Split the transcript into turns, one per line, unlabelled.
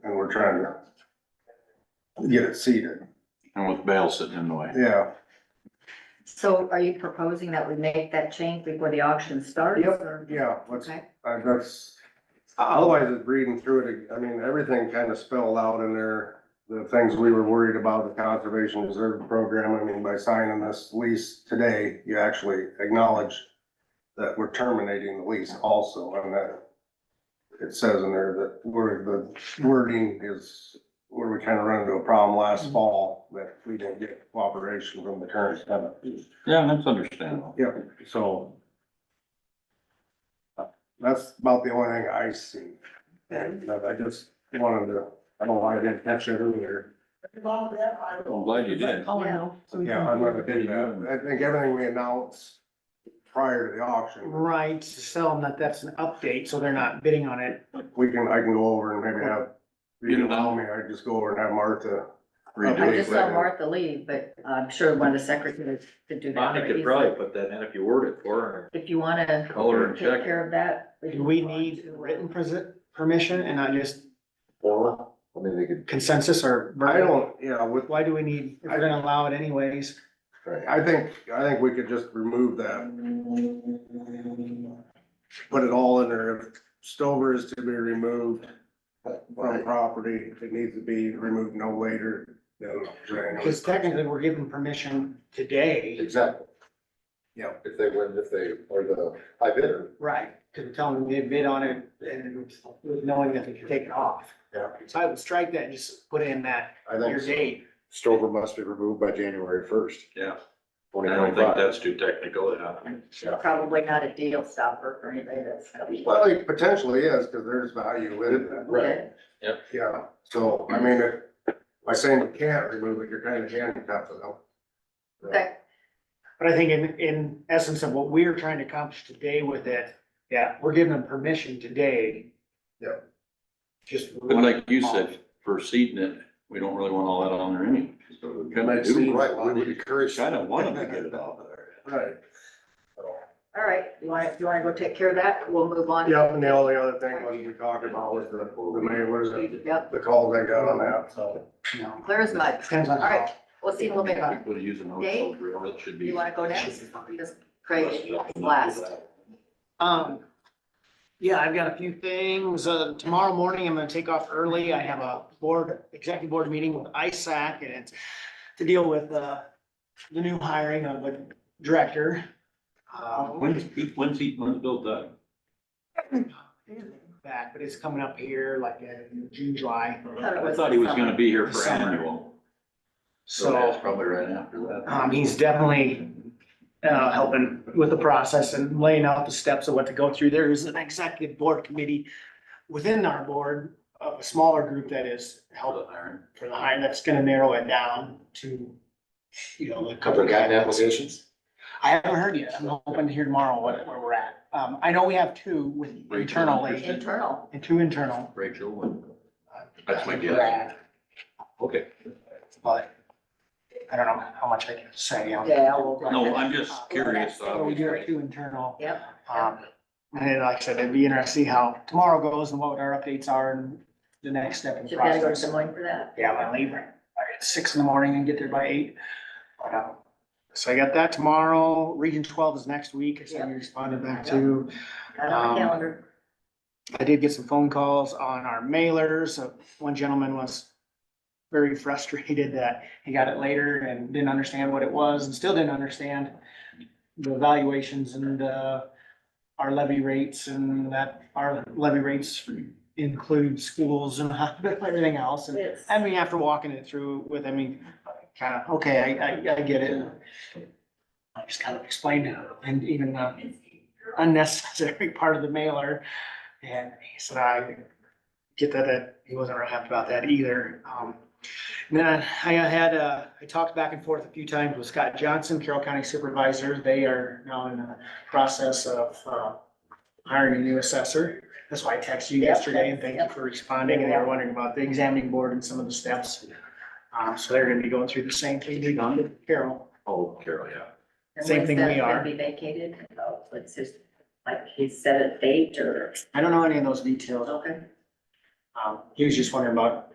we're trying to get it seated,
And with bail sitting in the way.
yeah.
So are you proposing that we make that change before the auction starts?
Yep,
or-
Yeah, let's,
Okay,
uh, that's, otherwise it's reading through it, I mean, everything kind of spelled out in there. The things we were worried about, the conservation reserve program, I mean, by signing this lease today, you actually acknowledge that we're terminating the lease also, and that it says in there that where the wording is, where we kind of ran into a problem last fall, that we didn't get cooperation from the current tenant.
Yeah, that's understandable.
Yeah, so. uh, That's about the only thing I see. And uh, I just wanted to, I don't know why I didn't catch it earlier.
I'm glad you did.
Oh,
Yeah.
no. So we
Yeah,
can-
I'm gonna do that. I think everything we announced prior to the auction,
Right, to tell them that that's an update, so they're not bidding on it.
we can, I can go over and maybe have, if you
Get it
allow
out.
me, I just go over and have Martha.
I
Redo
just
it.
saw Martha leave, but I'm sure one of the secretaries could do that.
Bonnie could probably put that in if you word it for her.
If you wanna
Color and
take
check.
care of that.
Do we
can go on
need
to, uh,
written presi- permission and not just
Well, I mean, they could.
consensus or?
I don't, yeah, with,
Why do we need, if we're gonna allow it anyways?
I think, I think we could just remove that. Put it all in there. If Stover is to be removed, from property, it needs to be removed no later than January.
Because technically, we're given permission today.
Exactly,
Yeah,
if they win, if they are the high bidder.
Right, because we're telling them they bid on it and knowing that they can take it off.
Yeah.
So I would strike that and just put in that
I
your
think
date.
Stover must be removed by January first,
Yeah, I
twenty
don't think
twenty-five.
that's too technical, yeah.
Probably not a deal stopper for anybody that's.
well, it potentially is, because there's value in it,
Right,
yeah, so, I mean, if- by saying you can't remove it, you're kind of handicapped, though.
Okay,
But I think in, in essence of what we're trying to accomplish today with it, yeah, we're giving them permission today.
Yep.
Just.
But like you said, for seeding it, we don't really want all that on there anyway. So we kind of do.
right, we would encourage.
Kind of want them to get it out of there.
Right.
all right, you wanna, you wanna go take care of that? We'll move on.
Yeah, and the only other thing was we talked about was the, the mayor, what is it,
Yep,
the calls I got on that, so.
No.
clear as mud.
Depends on.
All right, we'll see in a little bit.
People using those,
Dave,
that should be.
You wanna go next? Just Craig, last.
Um, yeah, I've got a few things. Uh, tomorrow morning, I'm gonna take off early. I have a board, executive board meeting with ISAC and it's to deal with, uh, the new hiring of a director. Uh,
When's, when's he, when's Bill done?
back, but it's coming up here like in June, July.
I thought he was gonna be here for
Summer.
annual. So
So,
that's probably Uh-huh. right after that.
um, he's definitely, uh, helping with the process and laying out the steps of what to go through. There is an executive board committee within our board, of a smaller group that is helping for the hire, that's gonna narrow it down to, you know, a
Couple
couple
of
of
gotten
guidelines.
applications?
I haven't heard yet. I'm hoping to hear tomorrow what, where we're at. Um, I know we have two with internally,
Internal.
and two internal.
Rachel, when- That's my guess.
Brad,
okay.
But I don't know how much I can say on.
Yeah, we'll-
No, I'm just curious, uh,
So we do
obviously.
have two internal.
Yep.
Um, and then, like I said, it'd be interesting to see how tomorrow goes and what our updates are and the next step in the
Should we go to
process.
Des Moines for that?
Yeah, I'm gonna leave at six in the morning and get there by eight. But, um, So I got that tomorrow. Region twelve is next week. I said we responded back to.
Got on the
Um,
calendar.
I did get some phone calls on our mailers. Uh, One gentleman was very frustrated that he got it later and didn't understand what it was and still didn't understand the valuations and, uh, our levy rates and that our levy rates include schools and everything else. And
It's-
I mean, after walking it through with, I mean, kind of, okay, I, I, I get it. I just kind of explained it and even uh, unnecessary part of the mailer. And he said, I get that, that he wasn't real happy about that either. Um, and then I had, uh, I talked back and forth a few times with Scott Johnson, Carroll County Supervisor. They are now in the process of, uh, hiring a new assessor. That's why I texted you
Yep,
yesterday and thank you
yep.
for responding. And they were wondering about the examining board and some of the steps. Um, so they're gonna be going through the same thing we done with Carroll.
Oh, Carol, yeah.
And
Same
when's
thing
that
we
gonna
are.
Be vacated, oh, it's just, like, he set a date or,
I don't know any of those details.
okay.
Um, he was just wondering about